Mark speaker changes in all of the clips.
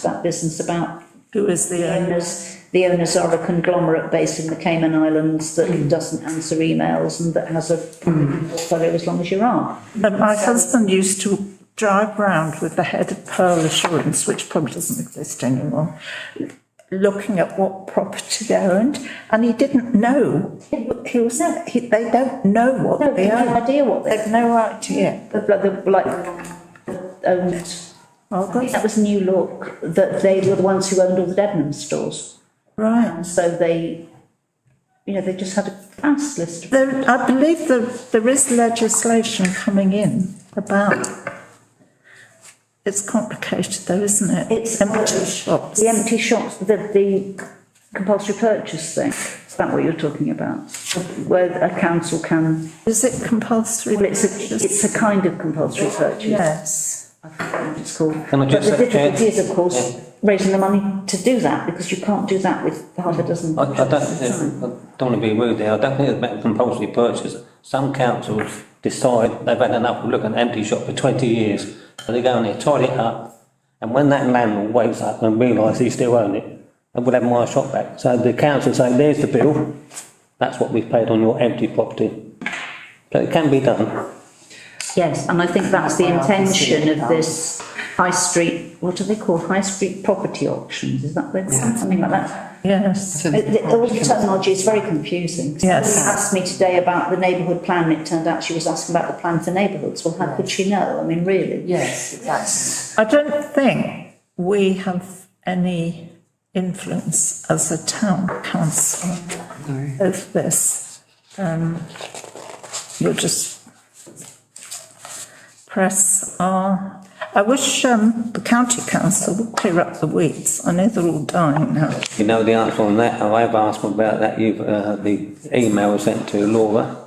Speaker 1: that business about
Speaker 2: Who is the
Speaker 1: the
Speaker 2: owner?
Speaker 1: owners, the owners are a conglomerate based in the Cayman Islands that doesn't answer emails and that has a portfolio as long as you are.
Speaker 2: Um, My husband used to drive round with the head of Pearl Assurance, which probably doesn't exist anymore, looking at what property they owned, and he didn't know. He w- He was, he, they don't know what
Speaker 1: They
Speaker 2: they
Speaker 1: have no
Speaker 2: own.
Speaker 1: idea what
Speaker 2: They've
Speaker 1: they're,
Speaker 2: no idea.
Speaker 1: like, owned. Oh,
Speaker 2: Margaret?
Speaker 1: That was New Look, that they were the ones who owned all the Debenham stores.
Speaker 2: Right.
Speaker 1: And so they, you know, they just had a vast list of.
Speaker 2: There, I believe there, there is legislation coming in about, it's complicated though, isn't it?
Speaker 1: It's-
Speaker 2: Empty shops.
Speaker 1: The empty shops, the, the compulsory purchase thing, is that what you're talking about? Where a council can,
Speaker 2: Is it compulsory?
Speaker 1: well, it's a,
Speaker 2: purchase?
Speaker 1: it's a kind of compulsory purchase,
Speaker 2: Yes.
Speaker 1: I forget what it's called.
Speaker 3: Can I just
Speaker 1: But the
Speaker 3: say, Chair?
Speaker 1: difficulty is, of course, raising the money to do that, because you can't do that with half a dozen.
Speaker 3: I, I don't,
Speaker 1: purchases at a time.
Speaker 3: I don't want to be rude there, I don't think it's about compulsory purchase. Some councils decide they've had enough of looking at empty shop for twenty years, so they go in there, tidy it up, and when that landlord wakes up and realises he still owns it, then we'll have my shop back. So the council say, there's the bill, that's what we've paid on your empty property. So it can be done.
Speaker 1: Yes, and I think that's the intention of this high street, what are they called, high street property auctions, is that, what- something like that?
Speaker 2: Yes.
Speaker 1: Uh, the- All the terminology is very confusing.
Speaker 2: Yes.
Speaker 1: Someone Asked me today about the neighbourhood plan, and it turned out she was asking about the plan for neighbourhoods, well, how could she know, I mean, really?
Speaker 4: Yes, exactly.
Speaker 2: I don't think we have any influence as a town council of this. Um, we'll just press on. I wish, um, the county council would clear up the weeds. I know they're all dying now.
Speaker 3: You know the answer on that, I have asked them about that, you've, uh, the email was sent to Laura.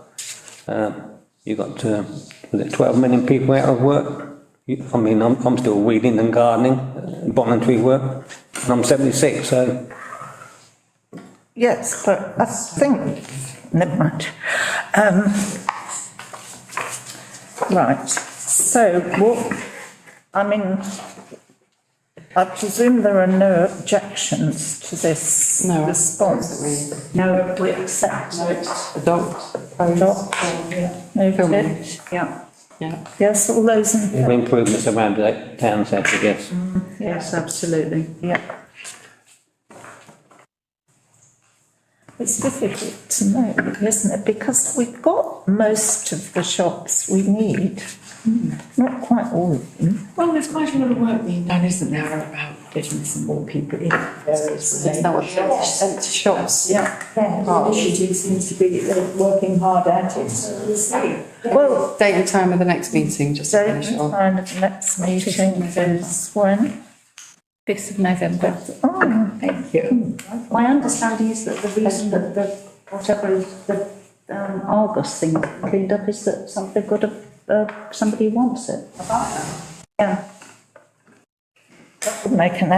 Speaker 3: Um, you got, uh, was it twelve million people out of work? You- I mean, I'm, I'm still weeding and gardening, uh, voluntary work, and I'm seventy-six, so
Speaker 2: Yes, but I think, never mind. Um, right, so what, I mean, I presume there are no objections to this
Speaker 4: No.
Speaker 2: response.
Speaker 1: No, we accept it.
Speaker 4: Adopt.
Speaker 2: Adopt. Moved it.
Speaker 4: Filming.
Speaker 1: Yeah,
Speaker 4: Yeah.
Speaker 2: Yes, all those in favour?
Speaker 3: improvements around the town centre, yes.
Speaker 1: yes, absolutely.
Speaker 2: Yeah. It's difficult to know, isn't it? Because we've got most of the shops we need, not quite all of them.
Speaker 4: Well, there's quite a lot of work being done, isn't there, about getting some more people in various shops. And shops. Yeah.
Speaker 2: Yeah.
Speaker 4: Initiative seems to be, they're working hard at it.
Speaker 2: Well,
Speaker 4: Date and time of the next meeting, just to
Speaker 2: date
Speaker 4: finish
Speaker 2: and
Speaker 4: it off.
Speaker 2: time of the next meeting is when?
Speaker 5: fifth of November.
Speaker 2: Oh,
Speaker 5: Thank you.
Speaker 1: My understanding is that the reason that the, whatever is the, um, Argos thing cleaned up is that some, they've got a, uh, somebody who wants it.
Speaker 2: yeah. That would make an